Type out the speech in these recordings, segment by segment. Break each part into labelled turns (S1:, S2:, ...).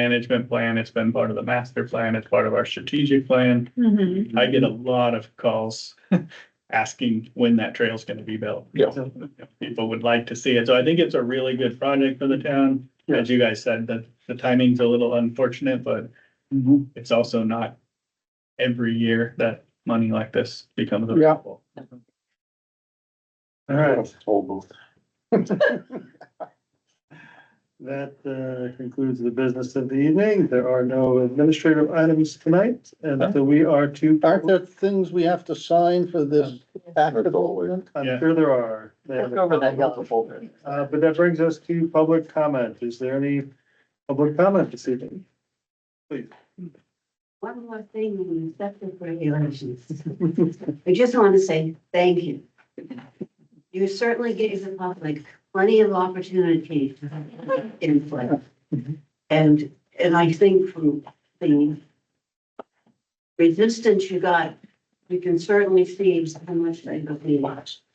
S1: management plan, it's been part of the master plan, it's part of our strategic plan.
S2: Mhm.
S1: I get a lot of calls asking when that trail's gonna be built.
S3: Yeah.
S1: People would like to see it, so I think it's a really good project for the town. As you guys said, the, the timing's a little unfortunate, but
S3: Mm-hmm.
S1: it's also not every year that money like this becomes
S3: Yeah.
S1: available.
S4: All right,
S3: Toll booth.
S4: that uh, concludes the business of the evening. There are no administrative items tonight, and so we are to.
S3: Aren't there things we have to sign for this act of government?
S4: I'm sure there are.
S5: Look over that yellow folder.
S4: Uh, but that brings us to public comment. Is there any public comment this evening?
S6: One more thing, in the septic regulations. I just want to say thank you. You certainly gave the public plenty of opportunity for input. And, and I think from the resistance you got, you can certainly see how much they believe.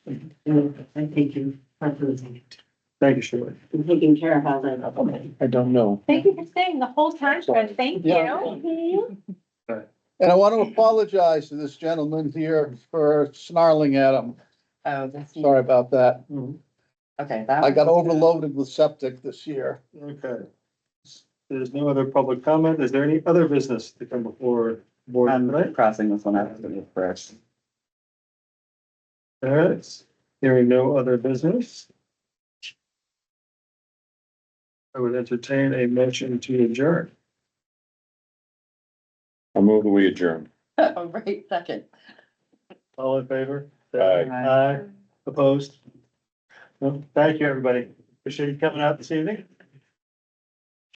S6: And I thank you for doing it,
S4: Thank you, Shirley.
S6: and taking care of all that.
S3: I don't know.
S2: Thank you for staying the whole time, Fred. Thank
S3: Yeah.
S2: you.
S3: And I want to apologize to this gentleman here for snarling at him.
S5: Oh, that's,
S3: Sorry about that.
S5: okay. that
S3: I got
S5: was-
S3: overloaded with septic this year.
S4: Okay. There's no other public comment. Is there any other business to come before board
S5: I'm
S4: tonight?
S5: crossing this one out to the first.
S4: All right, hearing no other business. I would entertain a motion to adjourn.
S7: I move that we adjourn.
S5: Right, second.
S4: All in favor?
S7: Aye.
S4: Aye, opposed? No, thank you, everybody. Appreciate you coming out this evening.